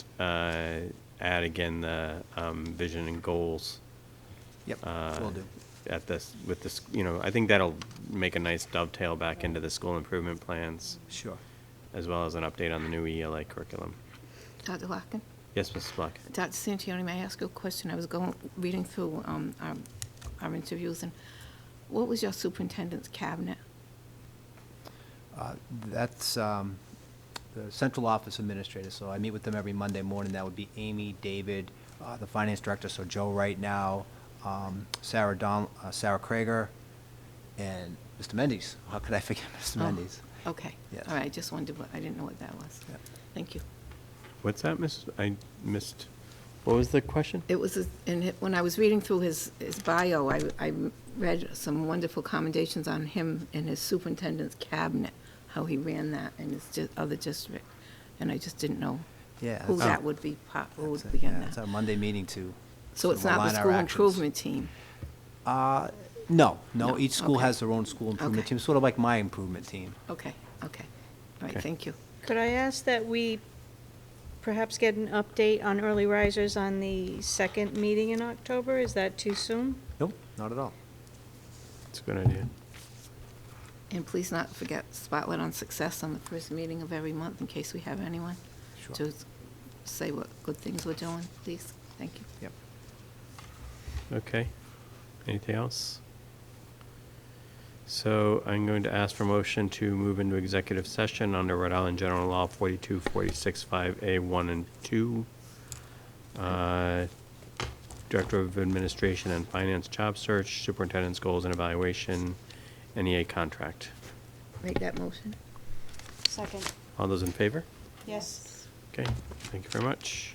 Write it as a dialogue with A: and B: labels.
A: uh, add again the um, vision and goals
B: Yep,
A: uh,
B: will do.
A: at this, with this, you know, I think that'll make a nice dovetail back into the school improvement plans,
B: Sure.
A: as well as an update on the new ELA curriculum.
C: Dr. Larkin?
A: Yes, Mrs. Black?
C: Dr. Santoni, may I ask you a question? I was going, reading through um, our our interviews, and what was your superintendent's cabinet?
B: Oh. Uh, That's um, the central office administrator, so I meet with them every Monday morning. That would be Amy, David, uh, the finance director, so Joe right now, um, Sarah Don, uh, Sarah Krager, and Mr. Mendes. How could I forget Mr.
C: Oh,
B: Mendes?
C: Okay.
B: Yes.
C: All right, I just wondered, what- I didn't know what that was.
B: Yeah.
C: Thank you.
A: What's that, Miss, I missed, what was the question?
C: It was, a- and it- when I was reading through his, his bio, I, I read some wonderful commendations on him and his superintendent's cabinet, how he ran that in his di- other district, and I just didn't know
B: Yeah.
C: who
B: that's-
C: that would be, po- who
B: that's
C: would
B: it,
C: be in
B: yeah, It's our
C: that.
B: Monday meeting to.
C: So
B: sort
C: it's
B: of
C: not
B: align
C: the
B: our
C: school
B: actions.
C: improvement team.
B: Uh, No, no,
C: No,
B: each school
C: okay.
B: has their own school improvement
C: Okay.
B: team, sort of like my improvement team.
C: Okay, okay. All
A: Okay.
C: right, thank you.
D: Could I ask that we perhaps get an update on early risers on the second meeting in October? Is that too soon?
B: Nope, not at all.
A: It's a good idea.
C: And please not forget Spotlight on Success on the first meeting of every month, in case we have anyone.
B: Sure.
C: To s- say what good things we're doing, please. Thank you.
B: Yep.
A: Okay. Anything else? So I'm going to ask for motion to move into executive session under Rhode Island General Law 42, 46, 5A, 1 and 2. Uh, Director of Administration and Finance Job Search, Superintendent's Goals and Evaluation, NEA Contract.
C: Make that motion.
D: Second.
A: All those in favor?
D: Yes.
A: Okay, thank you very much.